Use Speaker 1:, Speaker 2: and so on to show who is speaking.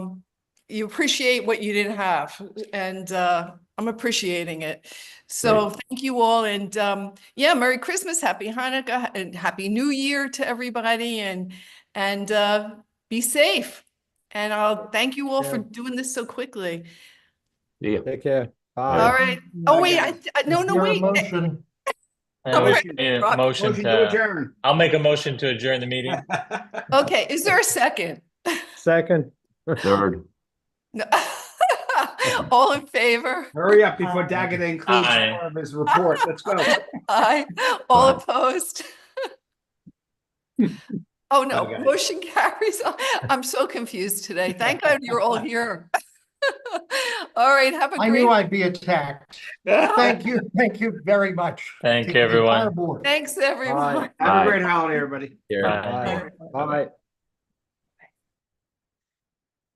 Speaker 1: you appreciate what you didn't have and uh, I'm appreciating it. So thank you all and um, yeah, Merry Christmas, Happy Hanukkah and Happy New Year to everybody and, and uh, be safe. And I'll thank you all for
Speaker 2: Yeah.
Speaker 1: doing this so quickly.
Speaker 3: Yeah.
Speaker 2: Take care.
Speaker 1: All
Speaker 2: Bye.
Speaker 1: right. Oh, wait, I, I- no,
Speaker 4: Is
Speaker 1: no,
Speaker 4: there a
Speaker 1: wait.
Speaker 4: Motion.
Speaker 1: All
Speaker 5: Uh,
Speaker 1: right.
Speaker 5: yeah, Motion
Speaker 4: Motion to
Speaker 5: to,
Speaker 4: adjourn.
Speaker 5: I'll make a motion to adjourn the meeting.
Speaker 1: Okay, is there a second?
Speaker 2: Second.
Speaker 3: Third.
Speaker 1: No. All in favor?
Speaker 4: Hurry up before Daggett includes
Speaker 5: Aye.
Speaker 4: more of his report. Let's go.
Speaker 1: Aye. All
Speaker 3: Aye.
Speaker 1: opposed? Oh, no,
Speaker 4: Okay.
Speaker 1: motion carries. I'm so confused today. Thank God you're all here. All right, have a
Speaker 4: I knew
Speaker 1: great,
Speaker 4: I'd be attacked. Thank you, thank you very much.
Speaker 5: Thank
Speaker 4: to
Speaker 5: you,
Speaker 4: the entire
Speaker 5: everyone.
Speaker 4: board.
Speaker 1: thanks,
Speaker 2: Bye.
Speaker 1: everyone.
Speaker 2: Bye.
Speaker 4: Have
Speaker 3: Bye.
Speaker 4: a great holiday, everybody.
Speaker 3: Here.
Speaker 5: Bye.
Speaker 2: Bye.